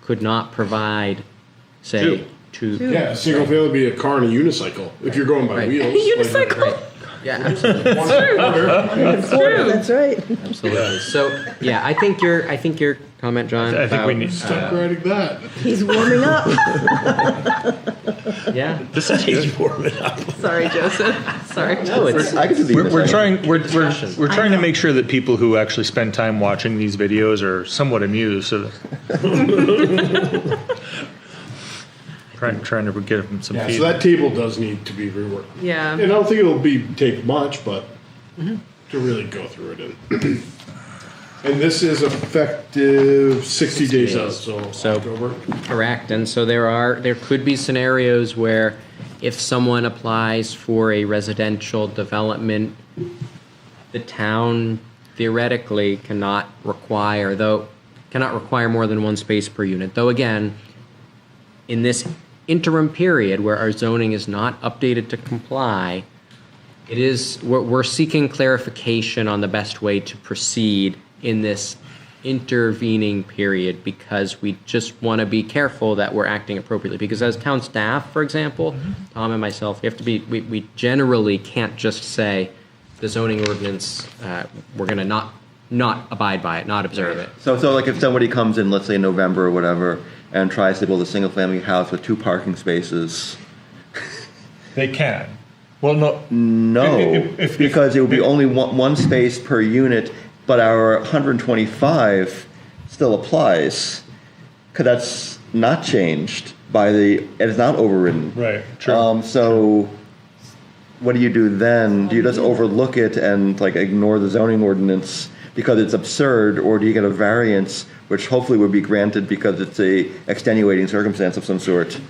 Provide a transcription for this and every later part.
could not provide, say, two. Yeah, a single family would be a car and a unicycle if you're going by Right. wheels. like- Unicycle. Yeah, absolutely, It's true. That's right. absolutely. So, yeah, I think your I think your comment, John. um, I think we about- need. Stop riding that. He's warming up. Yeah. This is good. Sorry, Joseph. Sorry. No, it's I can do the We're, we're unicycle. trying. We're, we're, we're I trying to know. make sure that people who actually spend time watching these videos are somewhat amused. So trying trying to give them some Yeah, so feedback. that table does need to be reworked. Yeah. And I don't think it'll be take much, but to really go through it. In. and this is effective 60 days out, so, So- October. Correct, and so there are, there could be scenarios where if someone applies for a residential development, the town theoretically cannot require, though, cannot require more than one space per unit, though again, in this interim period where our zoning is not updated to comply, it is, we're, we're seeking clarification on the best way to proceed in this intervening period because we just want to be careful that we're acting appropriately. Because as town staff, for example, Tom and myself, we have to be, we, we generally can't just say the zoning ordinance, uh, we're going to not, not abide by it, not observe it. So, so like if somebody comes in, let's say in November or whatever, and tries to build a single family house with two parking spaces, They can. Well, no. no, If- if- if- because it would be only one, one space per unit, but our 125 still applies, because that's not changed by the, and it's not overridden. Right. True. Um, so, what do you do then? Do you just overlook it and like ignore the zoning ordinance because it's absurd, or do you get a variance, which hopefully would be granted because it's a extenuating circumstance of some sort?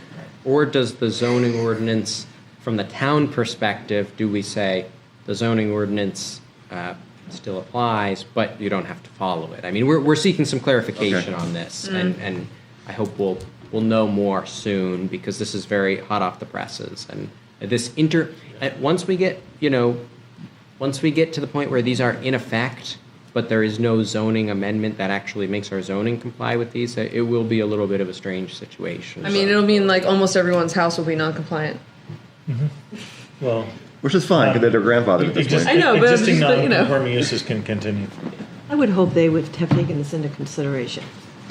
Or does the zoning ordinance, from the town perspective, do we say the zoning ordinance uh, still applies, but you don't have to follow it? I mean, we're, we're seeking some clarification on this, Mm. and, and I hope we'll, we'll know more soon, because this is very hot off the presses. And this inter, at, once we get, you know, once we get to the point where these are in effect, but there is no zoning amendment that actually makes our zoning comply with these, it will be a little bit of a strange situation. I mean, So- it'll mean like almost everyone's house will be non-compliant. well, Which is fine because they're grandfathered at this point. I know, but I'm existing just- but, you know. non-conforming uses can continue. I would hope they would have taken this into consideration.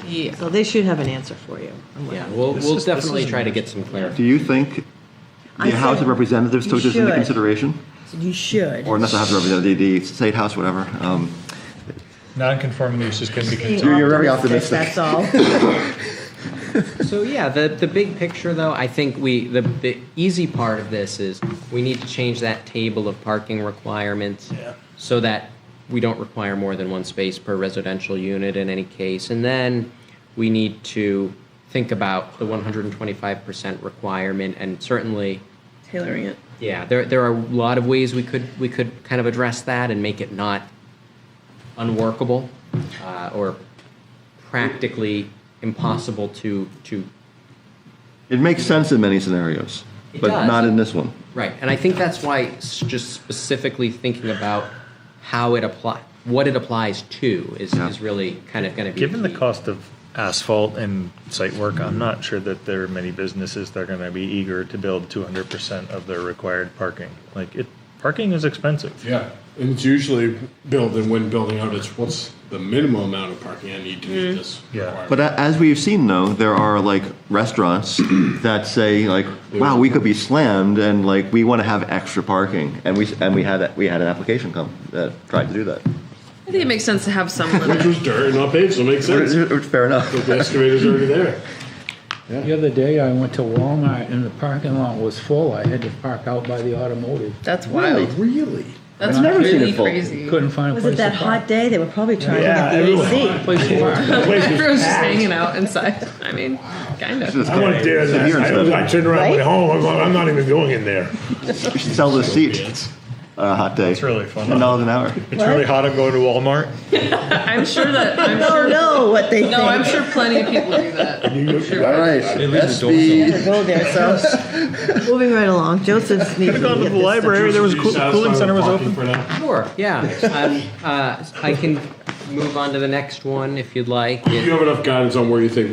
Yeah. So they should have an answer for you. on what- Yeah, we'll, This we'll is- this definitely is try to nice. get some clarity. Do you think I the House said of Representatives you took this into should. consideration, You should. or not the House of Representatives, the, the state house, whatever? Um, Non-conforming uses can be Being continued. You're- you're very That's all. So yeah, the, the big picture though, I think we, the, the easy part of this is we need to change that table of parking requirements Yeah. so that we don't require more than one space per residential unit in any case. And then we need to think about the one hundred and twenty-five percent requirement and certainly Tailoring it. Yeah, there, there are a lot of ways we could, we could kind of address that and make it not unworkable uh, or practically impossible to, to, it makes sense in many scenarios, It but does. not in this one. right. And I think that's why s- just specifically thinking about how it apply, what it applies to is, Yeah. is really kind of going to be. Given the key. cost of asphalt and site work, I'm not sure that there are many businesses that are going to be eager to build 200% of their required parking. Like it, parking is expensive. Yeah, and it's usually built and when building out, it's what's the minimum amount of parking I need to meet this Yeah. requirement. But a- as we've seen, though, there are like restaurants that say like, "Wow, we could be slammed," and like we want to have extra parking, and we and we had we had an application come that tried to do that. I think it makes sense to have some Which limit. was dirt and not paved, so it makes sense. Fair enough. the excavator's already there. The other day, I went to Walmart and the parking lot was full. I had to park out by the automotive. That's wild. Really? That's I've never seen really it full. crazy. Couldn't find a Was it place to that hot park. day? They were probably trying Yeah, to everyone. get the AC. Place to park. Everyone's just hanging out inside. I mean, kind of. I want There, Beer and I, stuff. I turned around and went Right? home. I'm, I'm not even going in there. You should sell the seat on a hot day. It's really fun. Ten dollars an hour. It's really hot. I'm going to Walmart. I'm sure that. I'm Oh sure. no, what they think. No, I'm sure plenty of people do that. All right. Gotta go there. So moving right along, Joseph's needs to gone to get the this library. done. There was a cool- cooling center was open. For now? Sure, yeah. Um, uh, I can move on to the next one if you'd like. You have enough guidance on where you think